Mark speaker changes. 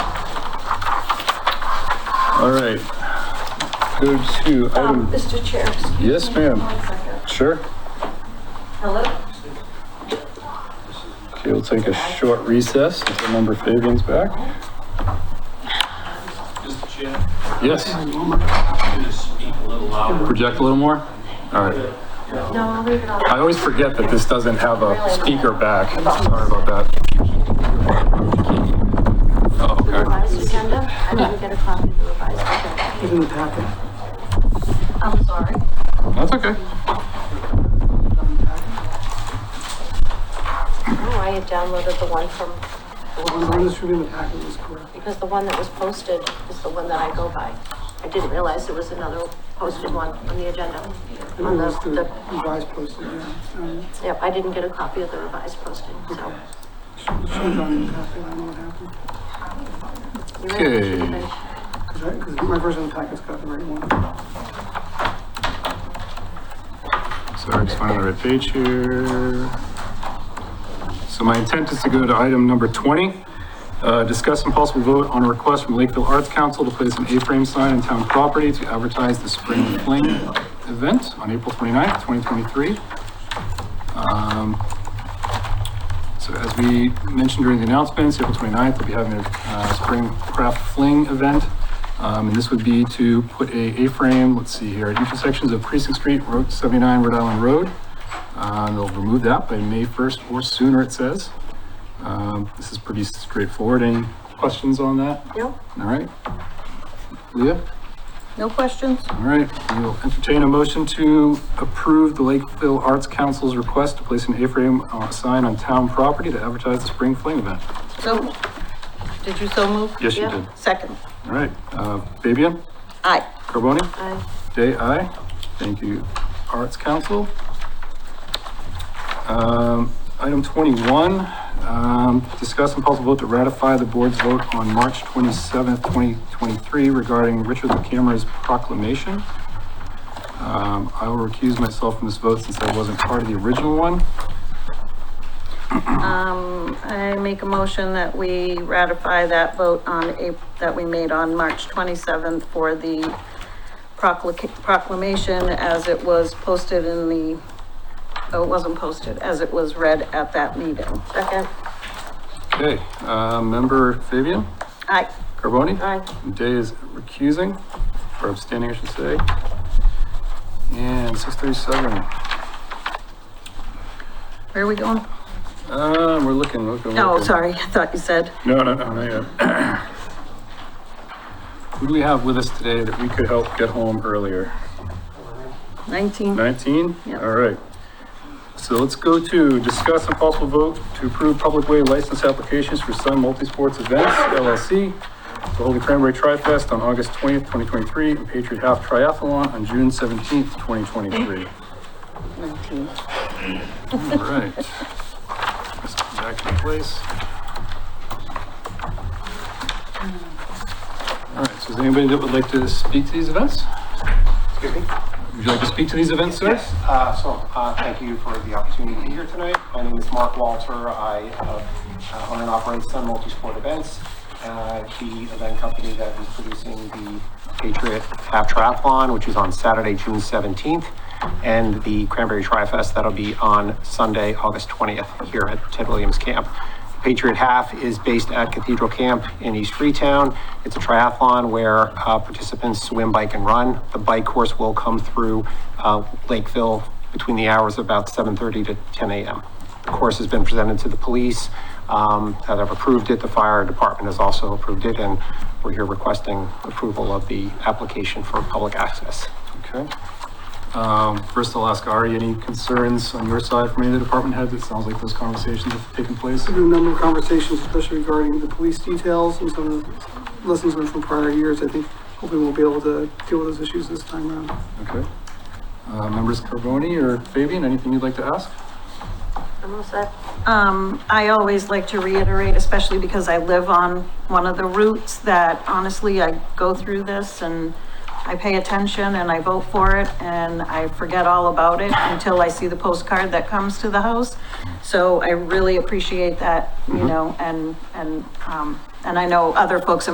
Speaker 1: All right. Go to item,
Speaker 2: Um, Mr. Chair, excuse me.
Speaker 1: Yes, ma'am.
Speaker 2: One second.
Speaker 1: sure.
Speaker 2: Hello?
Speaker 1: Okay, we'll take a short recess until member Fabian's back.
Speaker 3: Mr. Chair,
Speaker 1: Yes,
Speaker 3: I'm gonna speak a little louder.
Speaker 1: project a little more. All right.
Speaker 2: No, I'll leave it on.
Speaker 1: I always forget that this doesn't have a speaker back. Sorry about that. Oh, okay.
Speaker 2: Revised agenda? I didn't get a copy of the revised agenda. Give me the packet. I'm sorry.
Speaker 1: That's okay.
Speaker 2: Oh, I had downloaded the one from,
Speaker 4: The one distributed in the packet was correct.
Speaker 2: because the one that was posted is the one that I go by. I didn't realize there was another posted one on the agenda.
Speaker 4: And
Speaker 2: On
Speaker 4: it
Speaker 2: the,
Speaker 4: was the
Speaker 2: the,
Speaker 4: revised posted, yeah. Um,
Speaker 2: yep, I didn't get a copy of the revised posting, so.
Speaker 4: Should have gone in the packet, I don't know what happened.
Speaker 2: you ready?
Speaker 1: Okay.
Speaker 4: Because my version of the packet's got the right one.
Speaker 1: Sorry, just finding the right page here. So my intent is to go to item number 20. uh, Discuss and possible vote on a request from Lakeville Arts Council to place an A-frame sign on town property to advertise the Spring Fling event on April 29th, 2023. Um, So as we mentioned during the announcements, April 29th, we'll be having a uh, Spring Craft Fling event. Um, And this would be to put a A-frame, let's see here, at intersections of Precinct Street, Route 79, Rhode Island Road. Uh, They'll remove that by May 1st or sooner, it says. Um, This is pretty straightforward. Any questions on that?
Speaker 2: No?
Speaker 1: All right. Leah?
Speaker 2: No questions?
Speaker 1: All right, we'll entertain a motion to approve the Lakeville Arts Council's request to place an A-frame uh, sign on town property to advertise the Spring Fling event.
Speaker 5: So, did you so move?
Speaker 1: Yes, you
Speaker 2: Yeah.
Speaker 1: did.
Speaker 5: Second.
Speaker 1: All right, uh, Fabian,
Speaker 5: Aye.
Speaker 1: Carboni,
Speaker 2: I,
Speaker 1: Day, aye. Thank you, Arts Council. Um, Item 21, um, discuss and possible vote to ratify the board's vote on March 27th, 2023 regarding Richard Camera's proclamation. Um, I will recuse myself from this vote since I wasn't part of the original one.
Speaker 5: Um, I make a motion that we ratify that vote on April, that we made on March twenty-seventh for the procla- proclamation as it was posted in the, oh, it wasn't posted, as it was read at that meeting.
Speaker 2: second,
Speaker 1: Okay, uh, member Fabian,
Speaker 5: Aye.
Speaker 1: Carboni?
Speaker 2: aye.
Speaker 1: Day is recusing, or abstaining, I should say. And 637.
Speaker 5: Where are we going?
Speaker 1: Um, we're looking, looking.
Speaker 5: No,
Speaker 1: looking.
Speaker 5: Oh, sorry, I thought you said.
Speaker 1: No, no, no, no, yeah. Who do we have with us today that we could help get home earlier?
Speaker 5: 19.
Speaker 1: 19?
Speaker 5: Yeah.
Speaker 1: All right. So let's go to discuss and possible vote to approve public way license applications for Sun Multisports Events LLC, the Holy Cranberry Tri-Fest on August 20th, 2023, and Patriot Half Triathlon on June 17th, 2023.
Speaker 5: 19.
Speaker 1: All right. Let's get Back to place. All right, so is there anybody that would like to speak to these events?
Speaker 6: Excuse me?
Speaker 1: Would you like to speak to these events, sir?
Speaker 6: Yes, uh, so, uh, thank you for the opportunity to be here tonight. My name is Mark Walter. I uh, uh, own and operate Sun Multisport Events, uh, the event company that is producing the Patriot Half Triathlon, which is on Saturday, June 17th, and the Cranberry Tri-Fest that'll be on Sunday, August 20th, here at Ted Williams Camp. Patriot Half is based at Cathedral Camp in East Freetown. It's a triathlon where uh, participants swim, bike, and run. The bike course will come through uh, Lakeville between the hours of about 7:30 to 10 a.m. The course has been presented to the police um, that have approved it. The fire department has also approved it, and we're here requesting approval of the application for public access.
Speaker 1: Okay. Um, First, I'll ask Ari, any concerns on your side from any of the department heads? It sounds like those conversations have taken place.
Speaker 4: There's been a number of conversations, especially regarding the police details and some of the lessons learned from prior years. I think hopefully we'll be able to deal with those issues this time around.
Speaker 1: Okay. Uh, Members Carboni or Fabian, anything you'd like to ask?
Speaker 2: I'm all set.
Speaker 5: Um, I always like to reiterate, especially because I live on one of the routes, that honestly, I go through this and I pay attention and I vote for it and I forget all about it until I see the postcard that comes to the house. So I really appreciate that, you know, and, and, um, and I know other folks in